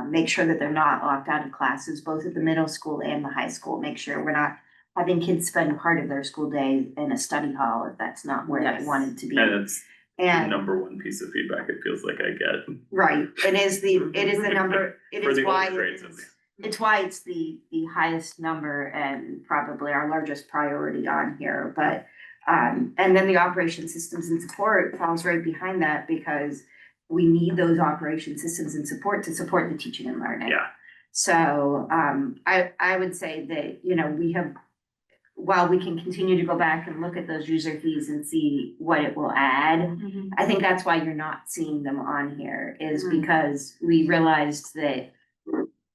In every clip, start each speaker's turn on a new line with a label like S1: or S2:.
S1: um, make sure that they're not locked out of classes, both at the middle school and the high school. Make sure we're not having kids spend part of their school day in a study hall if that's not where they
S2: Yes.
S1: wanted to be.
S3: And it's the
S1: And,
S3: number one piece of feedback it feels like I get
S1: right, it is the, it is the number, it
S3: for
S1: is
S3: the
S1: why
S3: older
S1: it
S3: grades at
S1: is.
S3: least.
S1: It's why it's the, the highest number and probably our largest priority on here, but, um, and then the operation systems and support falls right behind that because we need those operation systems and support to support the teaching and learning.
S3: Yeah.
S1: So, um, I, I would say that, you know, we have, while we can continue to go back and look at those user fees and see what it will add,
S2: Mm-hmm.
S1: I think that's why you're not seeing them on here is
S2: Mm.
S1: because we realized that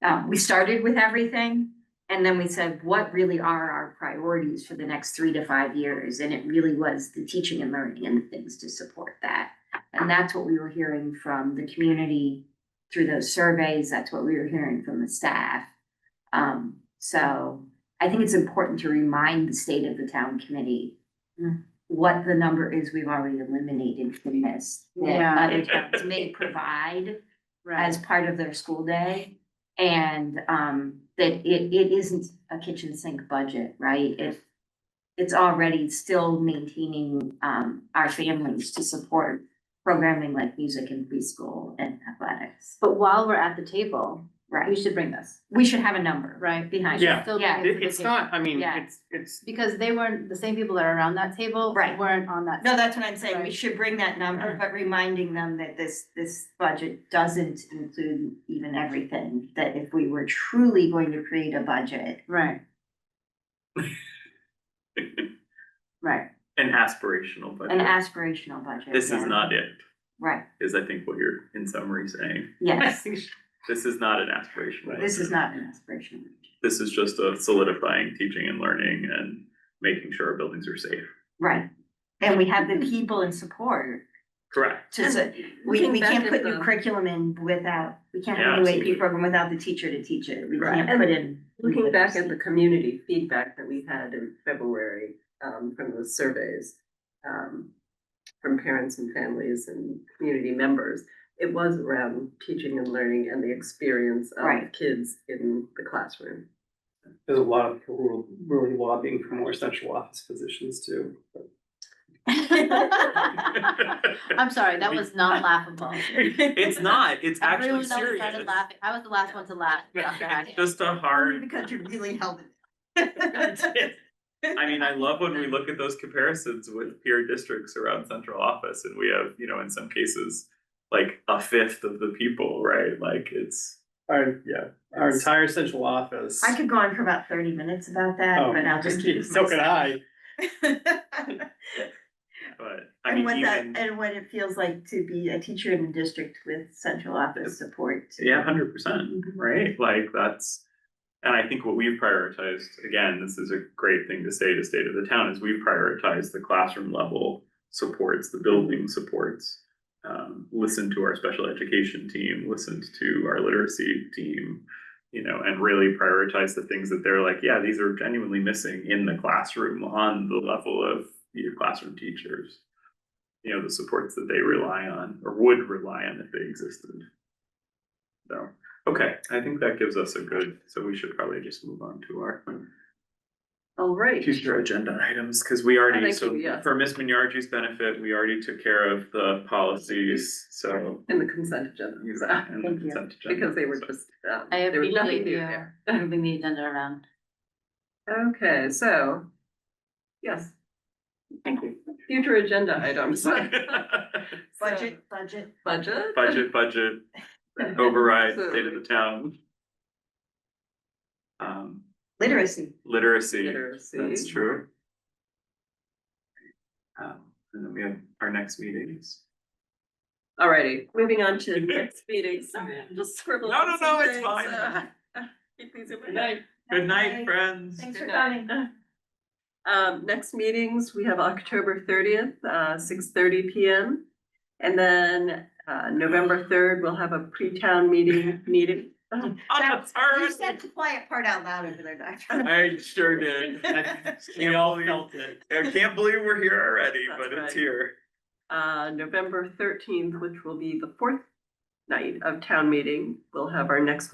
S1: um, we started with everything and then we said, what really are our priorities for the next three to five years? And it really was the teaching and learning and the things to support that. And that's what we were hearing from the community through those surveys. That's what we were hearing from the staff. Um, so I think it's important to remind the state of the town committee what the number is we've already eliminated from this. That
S2: Yeah.
S1: other towns may provide as
S2: Right,
S1: part of their school day. And um, that it, it isn't a kitchen sink budget, right? If it's already still maintaining um, our families to support programming like music and preschool and athletics,
S2: but while we're at the table, we
S1: right?
S2: should bring this,
S1: We should have a number.
S2: right?
S1: Behind
S3: Yeah.
S1: it.
S2: Still
S1: Yeah.
S2: bring it to
S3: It,
S2: the
S3: it's
S2: table.
S3: not, I mean,
S1: Yeah.
S3: it's, it's,
S2: Because they weren't, the same people that are around that table
S1: Right.
S2: weren't on that.
S1: No, that's what I'm saying. We
S2: Right.
S1: should bring that number, but reminding them that this, this budget doesn't include even everything. That if we were truly going to create a budget,
S2: Right, right,
S3: an aspirational, but
S1: an aspirational budget.
S3: this is
S1: yeah.
S3: not it,
S1: Right,
S3: is I think what you're in summary saying.
S1: yes.
S3: This is not an aspirational.
S1: This is not
S3: budget.
S1: an aspirational budget.
S3: This is just of solidifying teaching and learning and making sure our buildings are safe.
S1: Right. And we have the people in support
S3: Correct.
S1: to, s- we,
S4: think
S1: we
S4: that
S1: can't
S4: is
S1: put new
S4: the-
S1: curriculum in without, we can't
S3: Yeah,
S1: have a new AP
S3: absolutely.
S1: program without the teacher to teach it. We
S4: Right.
S1: can't put in.
S4: Looking back at the community feedback that we had in February, um, from those surveys, um, from parents and families and community members, it was around teaching and learning and the experience
S1: Right.
S4: of kids in the classroom.
S5: There's a lot of people who are really lobbying for more central office positions too.
S2: I'm sorry, that was not laughable.
S3: It's not, it's
S2: Everyone
S3: actually
S2: else
S3: serious.
S2: started laughing, I was the last one to laugh, Dr.
S3: It's
S2: Hackett.
S3: Just a hard.
S1: Because you really held it.
S3: I mean, I love when we look at those comparisons with peer districts around central office and we have, you know, in some cases, like a fifth of the people, right? Like it's,
S5: Our,
S3: yeah.
S5: our
S3: it's-
S5: entire central office.
S1: I could go on for about thirty minutes about that,
S5: Oh,
S1: but I'll just keep. it to
S5: So could
S1: myself.
S5: I.
S3: But I
S1: And
S3: mean,
S1: what that,
S3: even,
S1: and what it feels like to be a teacher in a district with central office support.
S3: yeah, hundred percent, right? Like that's, and I think what we've prioritized, again, this is a great thing to say to state of the town, is we've prioritized the classroom level supports, the building supports. Um, listened to our special education team, listened to our literacy team, you know, and really prioritize the things that they're like, yeah, these are genuinely missing in the classroom on the level of your classroom teachers. You know, the supports that they rely on or would rely on if they existed. So, okay, I think that gives us a good, so we should probably just move on to our
S4: All right.
S3: future agenda items, because we
S4: I
S3: already,
S4: think
S3: so
S4: we- yes.
S3: for Miss Minyarji's benefit, we already took care of the policies, so.
S4: In the consent agenda.
S3: use that in the
S1: Thank you.
S3: consent agenda.
S4: Because they were
S3: uh, So-
S4: just, um,
S2: I
S4: there was nothing
S2: appreciate
S4: new
S2: you
S4: there.
S2: moving the agenda around.
S4: Okay, so, yes. Thank you. Future agenda items.
S1: Budget, budget.
S4: Budget.
S3: Budget, budget, override, state of
S4: Absolutely.
S3: the town. Um,
S1: Literacy.
S3: literacy,
S4: Literacy.
S3: that's true. Um, and then we have our next meetings.
S4: Alrighty, moving on to next meeting, sorry, I'm just scribbling.
S3: No, no, no, it's
S4: some things,
S3: fine.
S4: uh, Keep these in
S3: Good
S4: mind.
S3: night, good
S1: Bye.
S3: night, friends.
S1: Thanks for
S4: Good
S1: coming.
S4: night. Um, next meetings, we have October thirtieth, uh, six thirty P M. And then, uh, November third, we'll have a pre-town meeting, meeting.
S3: On the
S1: You
S3: third.
S1: said the quiet part out loud over there, Doctor.
S3: I sure did. I
S5: We all felt it.
S3: I can't believe we're here already,
S4: That's
S3: but it's
S4: right.
S3: here.
S4: Uh, November thirteenth, which will be the fourth night of town meeting. We'll have our next